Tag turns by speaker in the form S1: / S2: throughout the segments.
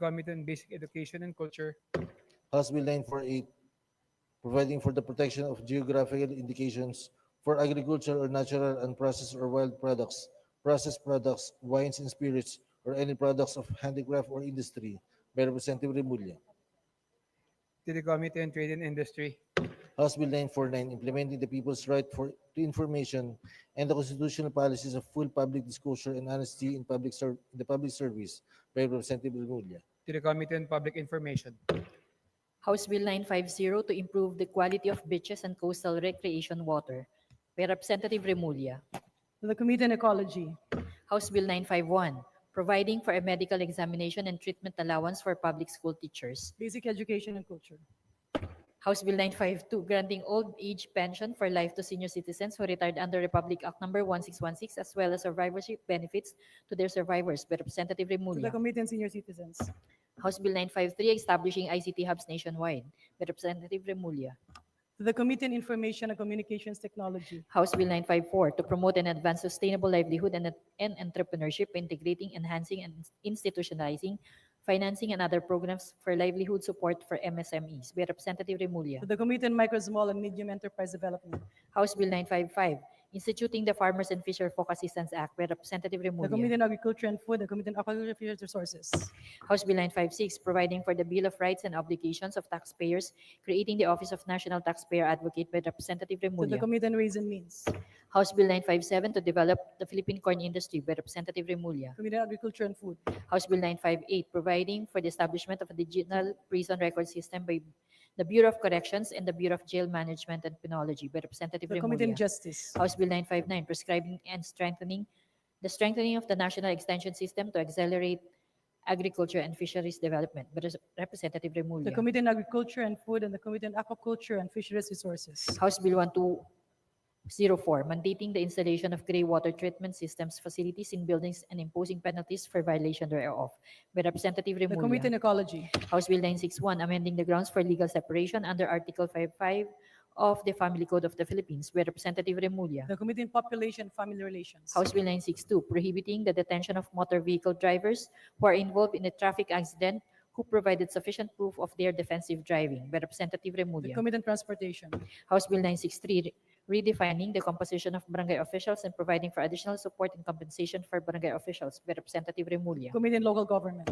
S1: Committee on Basic Education and Culture,
S2: House Bill 948, providing for the protection of geographical indications for agricultural or natural and processed or wild products, processed products, wines and spirits, or any products of handicraft or industry by Representative Remulla.
S1: to the Committee on Trade and Industry,
S2: House Bill 949, implementing the people's right for to information and the constitutional policies of full public disclosure and honesty in public ser- in the public service by Representative Remulla.
S1: to the Committee on Public Information,
S3: House Bill 950 to improve the quality of beaches and coastal recreation water by Representative Remulla.
S4: to the Committee on Ecology,
S3: House Bill 951, providing for a medical examination and treatment allowance for public school teachers.
S4: Basic Education and Culture,
S3: House Bill 952, granting old age pension for life to senior citizens who retired under Republic Act Number 1616 as well as survivorship benefits to their survivors by Representative
S4: to the
S3: Remulla.
S4: Committee on Senior Citizens, to
S3: House Bill 953, establishing ICT hubs nationwide by Representative Remulla.
S4: the Committee on Information and Communications Technology,
S3: House Bill 954 to promote and advance sustainable livelihood and, and entrepreneurship by integrating, enhancing, and institutionalizing financing and other programs for livelihood support for MSMEs by Representative Remulla.
S4: to the Committee on Micro, Small, and Medium Enterprise Development,
S3: House Bill 955 instituting the Farmers and Fisher Folk Assistance Act by Representative
S4: the Committee
S3: Remulla.
S4: on Agriculture and Food, the Committee on Aquaculture and Fisheries Resources,
S3: House Bill 956 providing for the Bill of Rights and Obligations of Taxpayers, creating the Office of National Taxpayer Advocate by Representative
S4: to the
S3: Remulla.
S4: Committee on Ways and Means,
S3: House Bill 957 to develop the Philippine corn industry by Representative Remulla.
S4: Committee on Agriculture and Food,
S3: House Bill 958, providing for the establishment of a digital prison record system by the Bureau of Corrections and the Bureau of Jail Management and Penology by
S4: to
S3: Representative
S4: the Committee on
S3: Remulla.
S4: Justice,
S3: House Bill 959, prescribing and strengthening the strengthening of the national extension system to accelerate agriculture and fisheries development by Res- Representative
S4: to the
S3: Remulla.
S4: Committee on Agriculture and Food, and the Committee on Aquaculture and Fisheries Resources,
S3: House Bill 1204, mandating the installation of gray water treatment systems facilities in buildings and imposing penalties for violation thereof by Representative
S4: the
S3: Remulla.
S4: Committee on Ecology,
S3: House Bill 961, amending the grounds for legal separation under Article 55 of the Family Code of the Philippines by Representative Remulla.
S4: the Committee on Population and Family Relations,
S3: House Bill 962, prohibiting the detention of motor vehicle drivers who are involved in a traffic accident who provided sufficient proof of their defensive driving by Representative
S4: the
S3: Remulla.
S4: Committee on Transportation,
S3: House Bill 963, redefining the composition of barangay officials and providing for additional support and compensation for barangay officials by Representative Remulla.
S4: Committee on Local Government,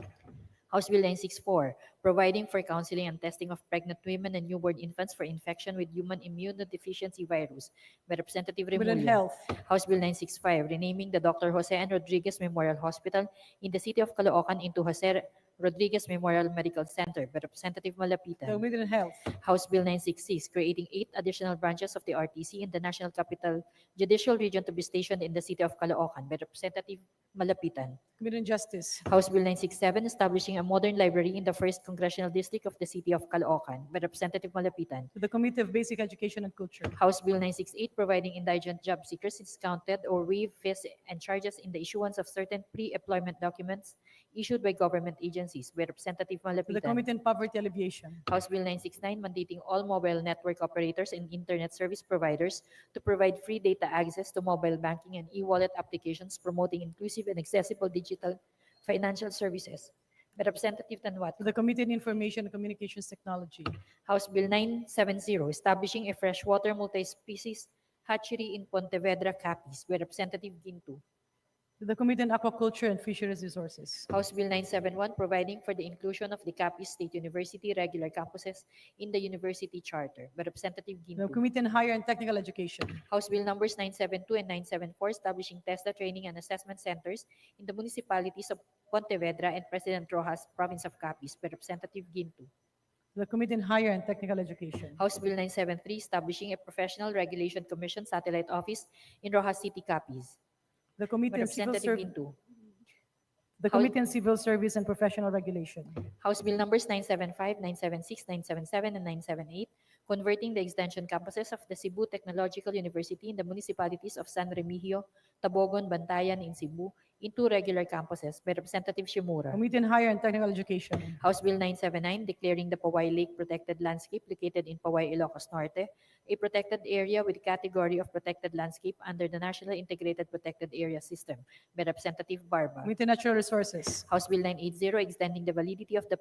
S3: House Bill 964, providing for counseling and testing of pregnant women and newborn infants for infection with human immunodeficiency virus by Representative
S4: Committee on
S3: Remulla.
S4: Health,
S3: House Bill 965, renaming the Dr. Jose N. Rodriguez Memorial Hospital in the city of Caloocan into Jose Rodriguez Memorial Medical Center by Representative
S4: the
S3: Malapitan.
S4: Committee on Health,
S3: House Bill 966, creating eight additional branches of the RTC in the National Capital Judicial Region to be stationed in the city of Caloocan by Representative Malapitan.
S4: Committee on Justice,
S3: House Bill 967, establishing a modern library in the first congressional district of the city of Caloocan by Representative Malapitan.
S4: to the Committee of Basic Education and Culture,
S3: House Bill 968, providing indigent job seekers discounted or waived fees and charges in the issuance of certain pre-employment documents issued by government agencies by Representative
S4: to the
S3: Malapitan.
S4: Committee on Poverty Alleviation,
S3: House Bill 969, mandating all mobile network operators and internet service providers to provide free data access to mobile banking and e-wallet applications promoting inclusive and accessible digital financial services. By Representative
S4: to
S3: Tanwat.
S4: the Committee on Information and Communications Technology,
S3: House Bill 970, establishing a freshwater multi-species hatchery in Pontevedra, Capiz. By Representative Ginto.
S4: to the Committee on Aquaculture and Fisheries Resources,
S3: House Bill 971, providing for the inclusion of the Capiz State University regular campuses in the university charter. By Representative
S4: to the
S3: Ginto.
S4: Committee on Higher and Technical Education,
S3: House Bill numbers 972 and 974 establishing TESDA training and assessment centers in the municipalities of Pontevedra and President Rojas, Province of Capiz, by Representative Ginto.
S4: to the Committee on Higher and Technical Education,
S3: House Bill 973 establishing a Professional Regulation Commission satellite office in Rojas City, Capiz, by
S4: to the Committee on Civil
S3: Representative
S4: Service,
S3: Ginto.
S4: the Committee on Civil Service and Professional Regulation,
S3: House Bill numbers 975, 976, 977, and 978, converting the extension campuses of the Cebu Technological University in the municipalities of San Remigio, Tabogon, Bantayan in Cebu in two regular campuses by Representative Shimura.
S4: Committee on Higher and Technical Education.
S3: House Bill 979, declaring the Pawai Lake Protected Landscape located in Pawai, Ilocos Norte, a protected area with category of protected landscape under the National Integrated Protected Area System by Representative Barba.
S4: Committee on Natural Resources.
S3: House Bill 980, extending the validity of the